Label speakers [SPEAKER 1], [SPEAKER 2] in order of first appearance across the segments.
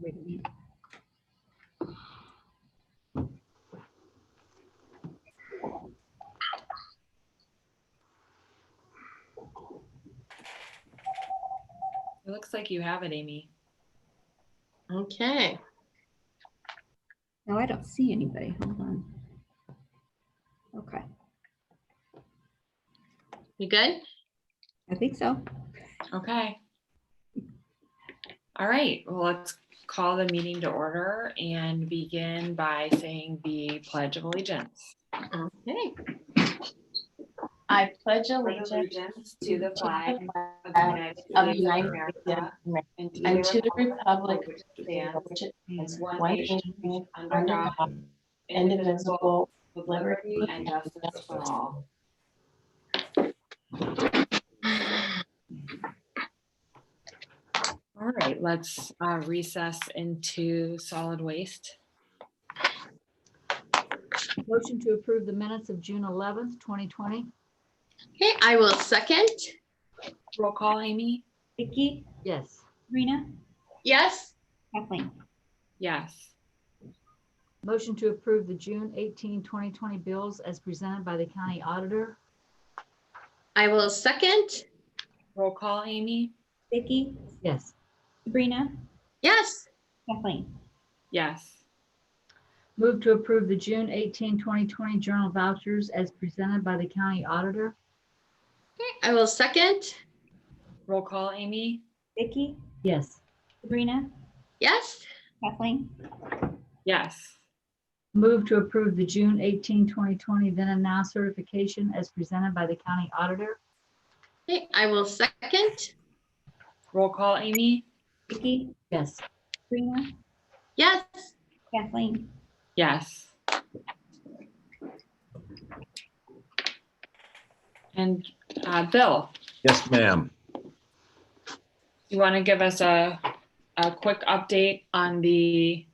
[SPEAKER 1] Wait a minute.
[SPEAKER 2] It looks like you have it, Amy.
[SPEAKER 3] Okay,
[SPEAKER 1] No, I don't see anybody. Hold on. Okay,
[SPEAKER 3] you good?
[SPEAKER 1] I think so.
[SPEAKER 2] Okay. All right, well, let's call the meeting to order and begin by saying the Pledge of Allegiance.
[SPEAKER 3] Okay,
[SPEAKER 4] I pledge allegiance
[SPEAKER 2] to the
[SPEAKER 4] flag of the United States of America and to the republic for which it stands one nation under God, indivisible, with liberty and justice for all.
[SPEAKER 2] All right, let's uh, recess into solid waste.
[SPEAKER 5] Motion to approve the minutes of June 11th, 2020.
[SPEAKER 3] okay, I will second.
[SPEAKER 2] Roll call, Amy?
[SPEAKER 1] Vicky,
[SPEAKER 5] Yes.
[SPEAKER 1] Rena,
[SPEAKER 3] Yes,
[SPEAKER 1] Kathleen,
[SPEAKER 2] Yes.
[SPEAKER 5] Motion to approve the June 18, 2020 bills as presented by the county auditor.
[SPEAKER 3] I will second.
[SPEAKER 2] Roll call, Amy?
[SPEAKER 1] Vicky,
[SPEAKER 5] Yes.
[SPEAKER 1] Sabrina,
[SPEAKER 3] Yes,
[SPEAKER 1] Kathleen,
[SPEAKER 2] Yes.
[SPEAKER 5] Move to approve the June 18, 2020 journal vouchers as presented by the county auditor.
[SPEAKER 3] okay, I will second.
[SPEAKER 2] Roll call, Amy?
[SPEAKER 1] Vicky,
[SPEAKER 5] Yes.
[SPEAKER 1] Sabrina,
[SPEAKER 3] Yes,
[SPEAKER 1] Kathleen,
[SPEAKER 2] Yes.
[SPEAKER 5] Move to approve the June 18, 2020 then and now certification as presented by the county auditor.
[SPEAKER 3] okay, I will second.
[SPEAKER 2] Roll call, Amy?
[SPEAKER 1] Vicky,
[SPEAKER 5] Yes.
[SPEAKER 1] Sabrina,
[SPEAKER 3] Yes,
[SPEAKER 1] Kathleen,
[SPEAKER 2] Yes. And uh, Bill,
[SPEAKER 6] Yes, ma'am.
[SPEAKER 2] you want to give us a, a quick update on the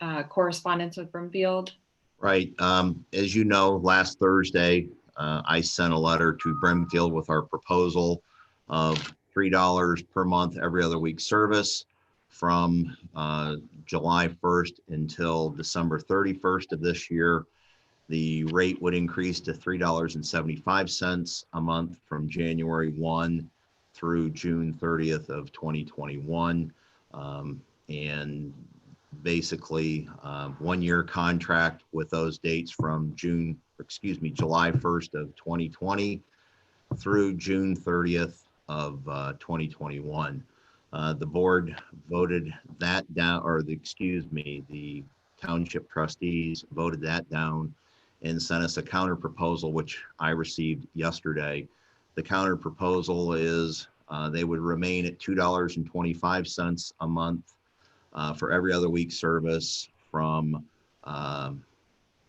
[SPEAKER 2] uh, correspondence with Brimfield?
[SPEAKER 6] Right. Um, as you know, last Thursday, uh, I sent a letter to Brimfield with our proposal of three dollars per month every other week service from uh, July first until December thirty-first of this year. The rate would increase to three dollars and seventy-five cents a month from January one through June thirtieth of twenty twenty-one. Um, And basically um, one-year contract with those dates from June, excuse me, July 1st of 2020 through June 30th of uh, 2021. Uh, The board voted that down, or the, excuse me, the township trustees voted that down and sent us a counter proposal, which I received yesterday. The counter proposal is uh, they would remain at $2.25 a month uh, for every other week service from um,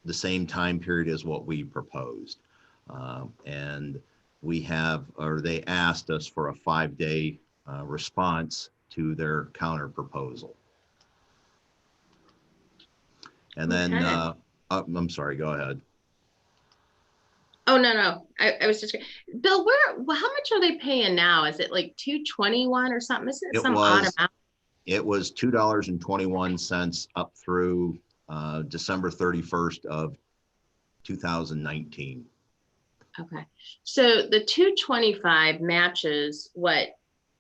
[SPEAKER 6] the same time period as what we proposed. Um, And we have, or they asked us for a five-day uh, response to their counter proposal. And then,
[SPEAKER 3] Okay.
[SPEAKER 6] uh, uh, I'm sorry, go ahead.
[SPEAKER 3] oh, no, no, I, I was just, Bill, where, well, how much are they paying now? Is it like 221 or something? Is it
[SPEAKER 6] It
[SPEAKER 3] some odd
[SPEAKER 6] was.
[SPEAKER 3] amount?
[SPEAKER 6] It was two dollars and twenty-one cents up through uh, December thirty-first of two thousand nineteen.
[SPEAKER 3] Okay, so the 225 matches what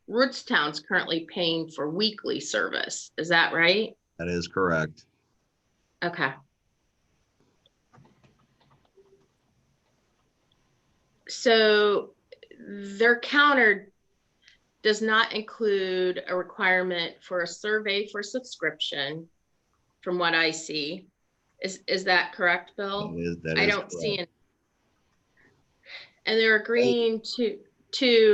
[SPEAKER 3] Rootstown's currently paying for weekly service. Is that right?
[SPEAKER 6] That is correct.
[SPEAKER 3] Okay. So their counter does not include a requirement for a survey for subscription, from what I see. Is, is that correct, Bill?
[SPEAKER 6] That is- that
[SPEAKER 3] I
[SPEAKER 6] is
[SPEAKER 3] don't
[SPEAKER 6] correct.
[SPEAKER 3] see it. And they're agreeing to, to